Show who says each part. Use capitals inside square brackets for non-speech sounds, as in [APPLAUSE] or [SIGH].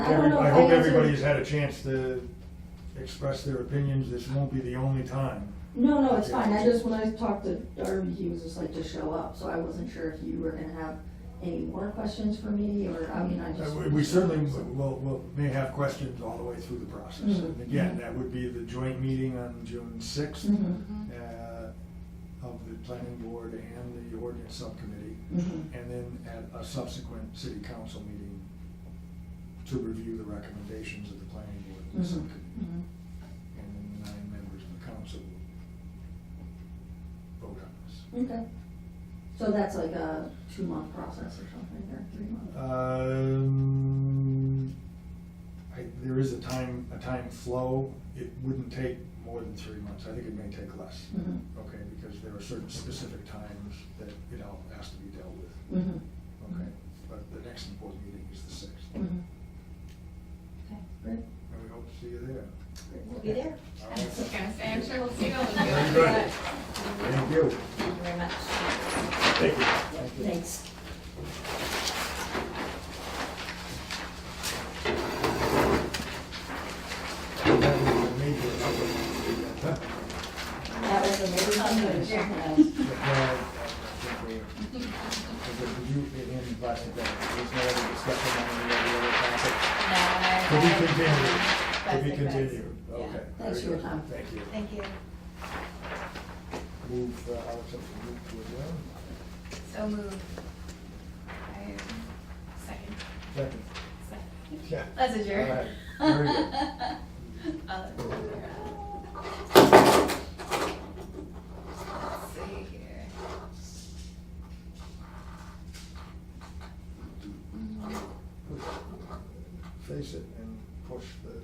Speaker 1: don't
Speaker 2: every,
Speaker 1: know
Speaker 2: I
Speaker 1: if
Speaker 2: hope
Speaker 1: I answered-
Speaker 2: everybody's had a chance to express their opinions, this won't be the only time.
Speaker 1: No, no, it's fine, I just, when I talked to Darby, he was just like, just show up, so I wasn't sure if you were gonna have any more questions for me, or, I mean, I
Speaker 2: Uh,
Speaker 1: just. Mm-hmm,
Speaker 2: we- We certainly will, will, may have questions all the way through the process.
Speaker 1: Mhm.
Speaker 2: And again, that would be the joint meeting on June sixth uh,
Speaker 1: Mhm,
Speaker 2: of the planning board and the ordinance subcommittee,
Speaker 1: mhm.
Speaker 2: and then at a subsequent city council meeting to review the recommendations of the planning board and the
Speaker 1: Mhm.
Speaker 2: subcommittee.
Speaker 1: Mm-hmm.
Speaker 2: and then the nine members of the council will vote on this.
Speaker 1: Okay, so that's like a two-month process or something, or three months?
Speaker 2: Uh, Um, I, there is a time, a time flow, it wouldn't take more than three months, I think it may take less.
Speaker 1: Mhm,
Speaker 2: Okay, because there are certain specific times that it all has to be dealt with,
Speaker 1: mhm,
Speaker 2: okay? But the next important meeting is the sixth, and
Speaker 1: mhm. Okay, great.
Speaker 2: we hope to see you there.
Speaker 3: We'll be
Speaker 2: All
Speaker 3: there. I was
Speaker 2: right.
Speaker 3: gonna say, I'm sure we'll see you all.
Speaker 2: Very good. Thank you.
Speaker 3: Thank you very much.
Speaker 2: Thank you.
Speaker 1: Thanks. That was a major conversation.
Speaker 2: But, uh, I think we- because if you- in the last event, There's no other discussion on any of the other topics.
Speaker 3: No, I-
Speaker 2: To
Speaker 3: I-
Speaker 2: be continued, to
Speaker 3: That's
Speaker 2: be
Speaker 3: it, guys.
Speaker 2: continued,
Speaker 3: Yeah.
Speaker 2: okay.
Speaker 1: Thanks for your time.
Speaker 2: Thank you.
Speaker 3: Thank you.
Speaker 2: Move, uh, I'll accept the move to adjourn.
Speaker 3: So moved. I- Second.
Speaker 2: Second.
Speaker 3: Second.
Speaker 2: Yeah.
Speaker 3: That's a jerk.
Speaker 2: All right. Very good.
Speaker 3: [LAUGHS] Uh, Let's see here. Mm-hmm.
Speaker 2: Face it and push the